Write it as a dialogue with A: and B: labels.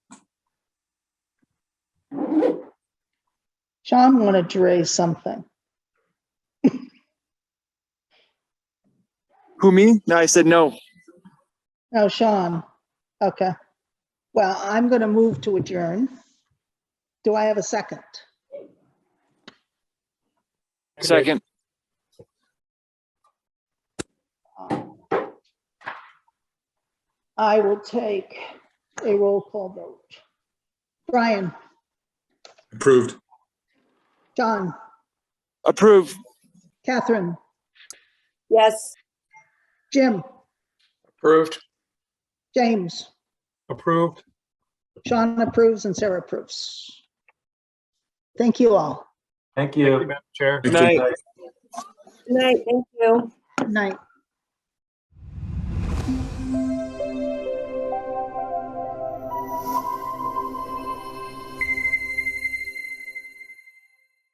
A: John wanted to raise something.
B: Who, me? No, I said no.
A: No, Oh, Sean. Okay. Well, I'm going to move to adjourn. Do I have a second?
B: Second.
A: I will take a roll call vote. Brian,
C: Approved.
A: John,
B: Approve.
A: Catherine,
D: Yes.
A: Jim,
C: Approved.
A: James,
C: Approved.
A: Sean approves and Sarah approves. Thank you all.
E: Thank you.
C: Chair.
B: Good night.
D: Good night. Thank you.
A: Good Night.